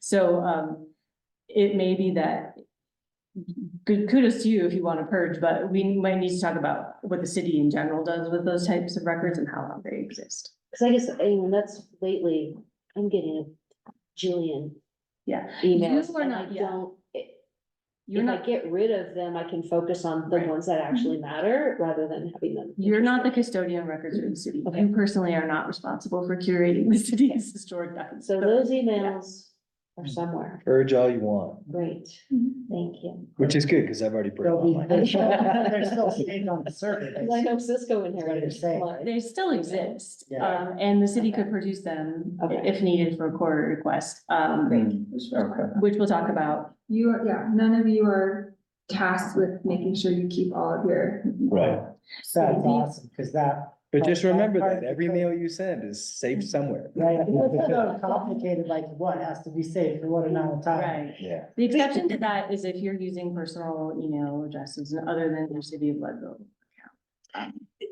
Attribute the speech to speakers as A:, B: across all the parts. A: So, um, it may be that. Good kudos to you if you want to purge, but we might need to talk about what the city in general does with those types of records and how long they exist.
B: Cause I guess, I mean, that's lately, I'm getting a jillian
A: Yeah.
B: emails
A: You are
B: and I
A: not- yeah.
B: don't. i-
A: You're
B: If I
A: not,
B: get rid of them, I can focus on the
A: Right. Mm-hmm.
B: ones that actually matter rather than having them.
A: you're not the custodian of records of the city.
B: Okay.
A: You personally are not responsible for curating the city's historic documents.
B: So those emails are somewhere.
C: Urge all you want,
B: Great,
D: Mm-hmm.
B: thank you.
C: which is good, because I've already put it
E: They'll
C: on
E: be,
C: my.
E: they're still, they're still staying on the surface.
B: I know Cisco
E: That's what you're
B: inherited.
E: saying,
B: mine.
A: They still exist,
E: Yeah.
A: um, and the city could produce them i-
B: Okay.
A: if needed for a quarter request, um,
C: Hmm, Okay.
A: which we'll talk about.
D: You, are yeah, none of you are tasked with making sure you keep all of your
C: Right.
E: That's awesome, because that,
C: But just remember that every mail you send is saved somewhere.
E: right, it's so complicated, like what has to be saved for what amount of time.
A: Right.
C: Yeah.
A: The exception to that is if you're using personal email addresses and other than your city of Leadville.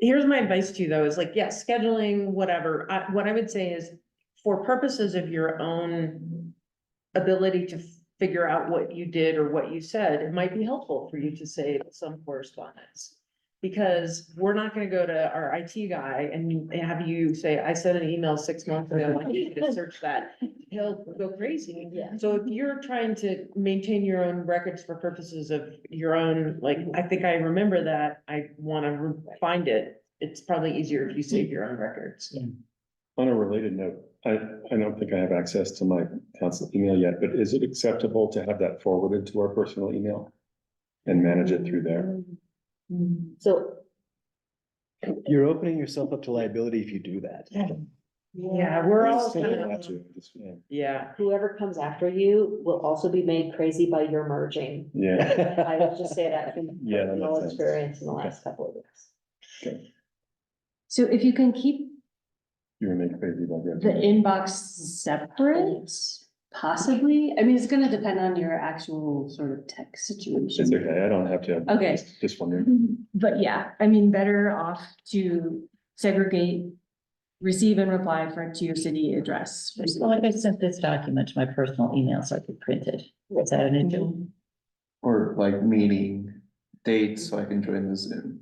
F: here's my advice to you though, is like, yes, scheduling, whatever. I, what I would say is for purposes of your own ability to figure out what you did or what you said, it might be helpful for you to save some correspondence. Because we're not gonna go to our IT guy and have you say, I sent an email six months ago, I need you to search that. He'll go crazy.
B: Yeah.
F: So if you're trying to maintain your own records for purposes of your own, like, I think I remember that, I wanna re- find it. It's probably easier if you save your own records.
G: On a related note, I, I don't think I have access to my council email yet, but is it acceptable to have that forwarded to our personal email? And manage it through there?
B: So,
C: You're opening yourself up to liability if you do that.
F: Yeah, we're all
G: Something
F: kind
G: about
F: of,
G: you, just, yeah.
F: yeah.
B: whoever comes after you will also be made crazy by your merging.
G: Yeah,
B: I will just say that from
G: Yeah, that makes
B: personal
G: sense.
B: experience in the last couple of weeks.
A: So if you can keep
G: you were making crazy about
A: the
G: that.
A: inbox separate, possibly, I mean, it's gonna depend on your actual sort of tech
G: It's
A: situation.
G: okay, I don't have to.
A: Okay.
G: Just- Just wondering.
A: But yeah, I mean, better off to segregate, receive and reply for, to your city address.
H: Well, like I sent this document to my personal email so I could print it. Is that an issue?
A: Mm-hmm.
I: Or like meeting dates, so I can join the Zoom.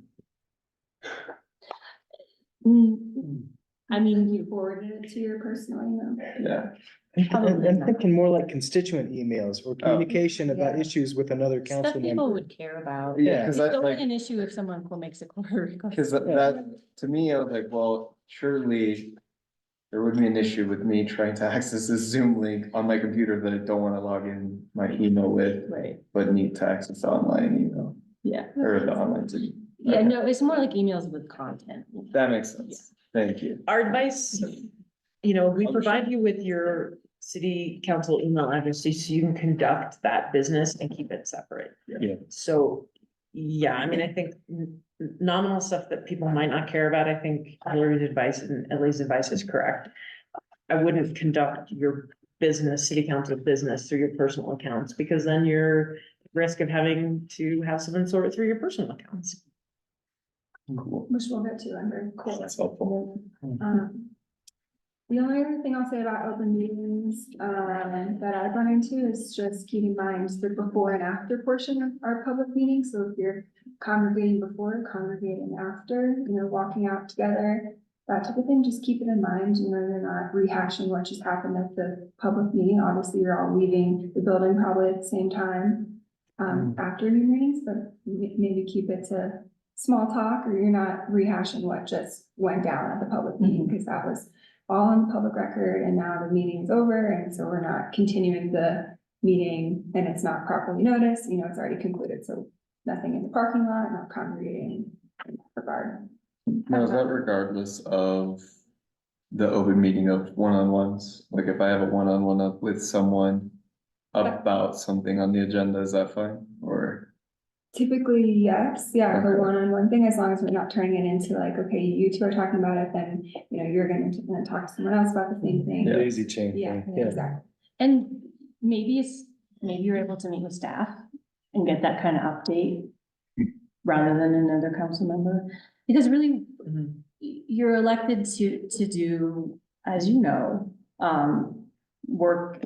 A: Mm, I mean,
D: you forwarded it to your personal email.
I: Yeah,
A: Probably
C: I'm
A: not.
C: thinking more like constituent emails or communication about issues with another
H: Stuff
C: council
H: people
C: member.
H: would care about.
I: yeah,
A: it's
I: cause I
A: only
I: like,
A: an issue if someone makes a quarter request.
I: cause that- that, to me, I was like, well, surely. There would be an issue with me trying to access this Zoom link on my computer that I don't wanna log in my email with,
A: Right,
I: but need to access online email
A: yeah.
I: or the online Zoom.
A: Yeah,
I: Okay.
A: no, it's more like emails with content.
I: That makes sense. Thank you.
F: Our advice, you know, we provide you with your city council email address, so you can conduct that business and keep it separate.
G: Yeah.
F: So, yeah, I mean, I think n- nominal stuff that people might not care about, I think Hillary's advice and Ellie's advice is correct. I wouldn't conduct your business, city council business through your personal accounts, because then you're at risk of having to have someone sort it through your personal accounts.
I: Cool.
D: Which we'll get to under cool.
G: That's helpful.
D: Um, The only other thing I'll say about open meetings, um, that I've run into is just keep in mind the before and after portion of our public meetings. So if you're congregating before, congregating after, you know, walking out together, that type of thing, just keep it in mind, you know, you're not rehashing what just happened at the public meeting. Obviously, you're all leaving the building probably at the same time, um, after your meetings, but m- maybe keep it to small talk or you're not rehashing what just went down at the public meeting because that was all on public record and now the meeting's over and so we're not continuing the meeting and it's not properly noticed, you know, it's already concluded, so nothing in the parking lot, not congregating in that regard.
I: Now, is that regardless of the open meeting of one-on-ones? Like if I have a one-on-one up with someone about something on the agenda, is that fine? Or,
D: Typically, yes, yeah, the
I: Okay.
D: one-on-one thing, as long as we're not turning it into like, okay, you two are talking about it, then, you know, you're gonna then talk to someone else about the same thing.
I: Yeah.
C: Daisy chain.
D: Yeah,
C: thing,
D: exactly.
A: And maybe it's, maybe you're able to meet with staff and get that kind of update rather than another council member. Because really, you're elected to, to do, as you know, um, work